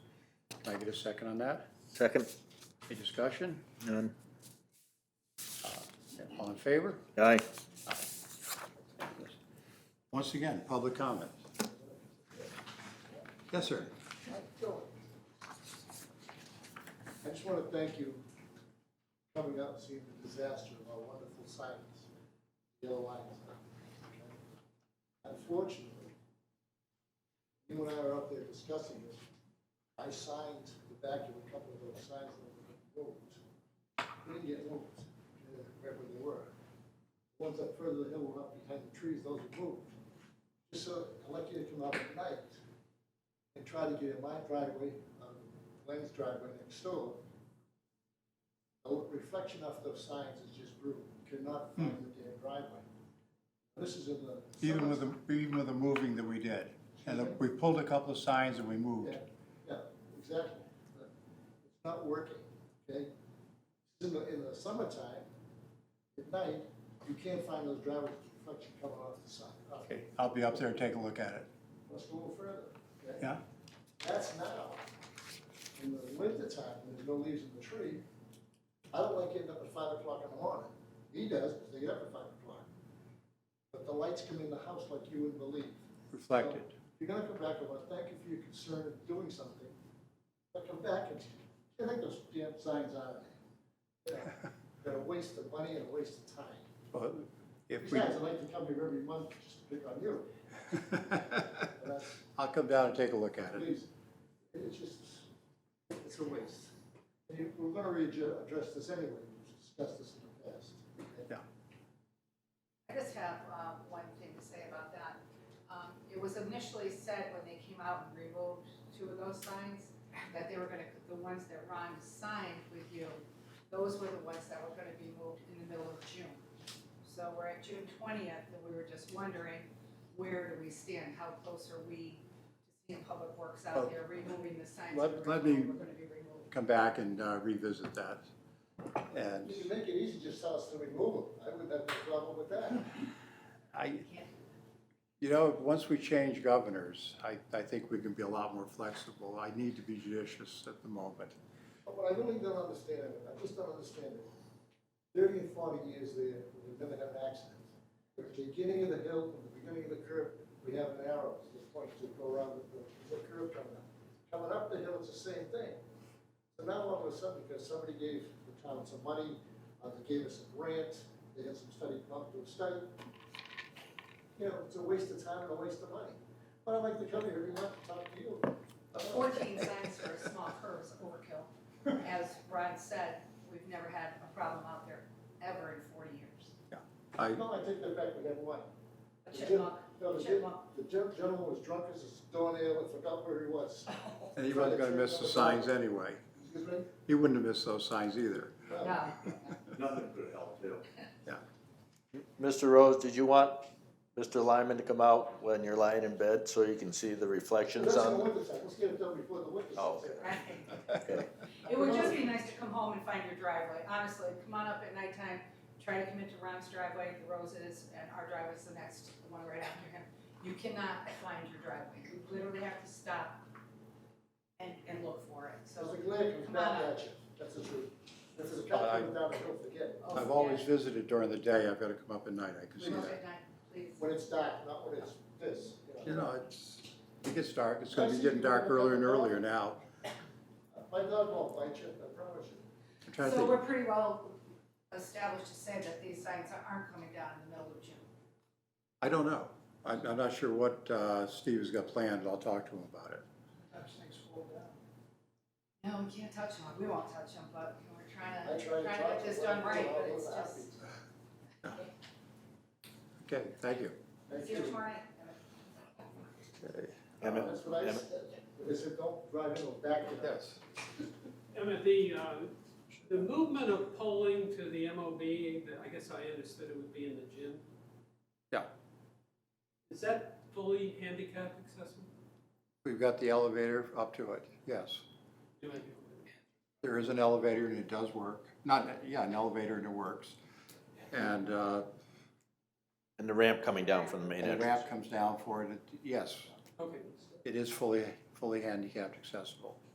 Can I get a second on that? Second? Any discussion? None. All in favor? Aye. Once again, public comment. Yes, sir. I just want to thank you for coming out and seeing the disaster of our wonderful sirens, yellow lines. Unfortunately, you and I were up there discussing this. I signed the back of a couple of those signs that were moved. They didn't get moved, uh, right where they were. The Ones up further the hill were up behind the trees, those were moved. Just so, I'd like you to come out at night and try to get in my driveway, um, Glenn's driveway next door. The reflection off those signs is just brutal, cannot find the damn driveway. This is in the. Even with the, even with the moving that we did, and we pulled a couple of signs and we moved. Yeah, yeah, exactly. But It's not working, okay? In the, in the summertime, at night, you can't find those driveway reflection coming off the sign. off- Okay, I'll be up there and take a look at it, Let's go a little further, okay? yeah? That's now. In the winter time, when there's no leaves in the tree, I don't like getting up at five o'clock in the morning. He does, because they get up at five o'clock. But the lights come in the house like you wouldn't believe. Reflected. So, If you're gonna come back, I want to thank you for your concern of doing something, but come back and, I think those damn signs are there. Yeah. They're a waste of money and a waste of time. Well, If we, Besides, I like to come here every month just to pick on you, but that's, I'll come down and take a look at it. Please, it's just, it's a waste. And you- We're gonna readju- address this anyway, we've discussed this in the past. Yeah. I just have uh, one thing to say about that. Um, It was initially said when they came out and removed two of those signs, that they were gonna, the ones that Ron signed with you, those were the ones that were gonna be moved in the middle of June. So we're at June twentieth, and we were just wondering, where do we stand? How close are we to seeing Public Works Oh. out there removing the signs Let- that were let gonna me- were gonna be removed? Come back and uh, revisit that. And You can make it easy, just tell us to remove them, I wouldn't have a problem with that. I, Can't- you know, once we change governors, I, I think we can be a lot more flexible. I need to be judicious at the moment. Oh, But what I really don't understand, I just don't understand it. Thirty and forty years there, we've never had an accident. At the beginning of the hill, at the beginning of the curve, we have an arrow, this point to go around the, the curve coming up. Coming up the hill, it's the same thing. So now all of a sudden, because somebody gave the town some money, uh, they gave us a grant, they had some study, come to a study. You know, it's a waste of time and a waste of money. But I like to come here every month to talk to you. Fourteen signs for a small curve is overkill. As Ron said, we've never had a problem out there ever in forty years. I, No, I take that back, we have one. A chipmunk, No, the gen- chipmunk. the gen- gentleman was drunk as his doornail and forgot where he was. and he wasn't gonna miss the signs anyway. Excuse me? He wouldn't have missed those signs either. No, No. no. Nothing could help too. Mr. Rose, did you want Mr. Lyman to come out when you're lying in bed so you can see the reflections That's in the on? winter time, let's get it done before the winter. Oh, sets in. Right. Okay. It would just be nice to come home and find your driveway, honestly, come on up at nighttime, try to come into Ron's driveway, the Rose's, and our driveway's the next one right after him. You cannot find your driveway, you literally have to stop and, and look for it, so. So the glare comes Come on back up. at you, that's the truth. If there's a cop coming down the hill, forget it. Oh, I've yeah. always visited during the day. I've gotta come up at night. I can see Look that. at night, please. When it's dark, not when it's this, you You know. know, it's, it gets dark, it's gonna be getting dark earlier and earlier now. Uh, My dog won't bite you, I promise you. I'm trying to So think, we're pretty well established to say that these signs aren't coming down in the middle of June. I don't know. I'm, I'm not sure what, uh, Steve's got planned, I'll talk to him about it. That's things fall down. No, we can't touch them, we won't touch them, but we're trying I try to, to trying to talk get to this them, done they're right, all but it's happy. just, Okay, thank you. Thank see you you. tomorrow. Emmett, That's what I Emmett. said. They said, don't drive in the back of that. Emmett, the, uh, the movement of polling to the MOB, the- I guess I understood it would be in the gym. Yeah. Is that fully handicap accessible? We've got the elevator up to it, yes. Do I- There is an elevator and it does work. Not, yeah, an elevator and it works. And, uh, And the ramp coming down from the main the entrance. ramp comes down for it, It- yes, Okay. it is fully, fully handicapped accessible.